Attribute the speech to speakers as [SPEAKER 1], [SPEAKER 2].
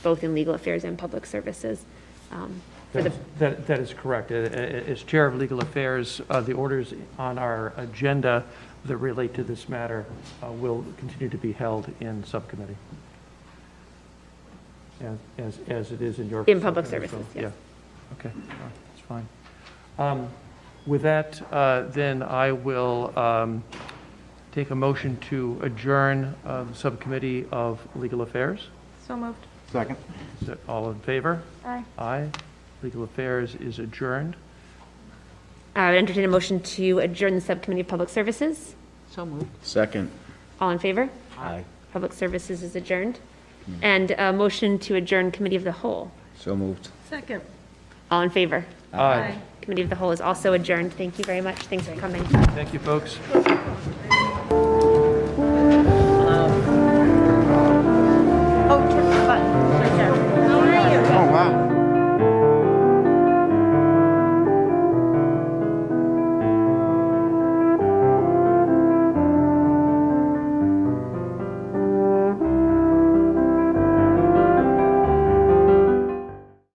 [SPEAKER 1] both in legal affairs and public services. um, For the,
[SPEAKER 2] That, that is correct. Uh, uh, As Chair of Legal Affairs, uh, the orders on our agenda that relate to this matter uh, will continue to be held in subcommittee. As- As, as it is in your.
[SPEAKER 1] In public
[SPEAKER 2] subcommittee, so,
[SPEAKER 1] services, yes.
[SPEAKER 2] Yeah, okay, all right, that's fine. Um, With that, uh, then I will um, take a motion to adjourn uh, the Subcommittee of Legal Affairs.
[SPEAKER 3] So moved.
[SPEAKER 4] Second.
[SPEAKER 2] Is that all in favor?
[SPEAKER 3] Aye.
[SPEAKER 2] Aye. Legal Affairs is adjourned.
[SPEAKER 1] I would entertain a motion to adjourn the Subcommittee of Public Services.
[SPEAKER 3] So moved.
[SPEAKER 4] Second.
[SPEAKER 1] All in favor?
[SPEAKER 4] Aye.
[SPEAKER 1] Public Services is adjourned. And a motion to adjourn Committee of the Whole.
[SPEAKER 4] So moved.
[SPEAKER 3] Second.
[SPEAKER 1] All in favor?
[SPEAKER 2] Aye.
[SPEAKER 1] Committee of the Whole is also adjourned. Thank you very much. Thanks for coming.
[SPEAKER 2] Thank you, folks.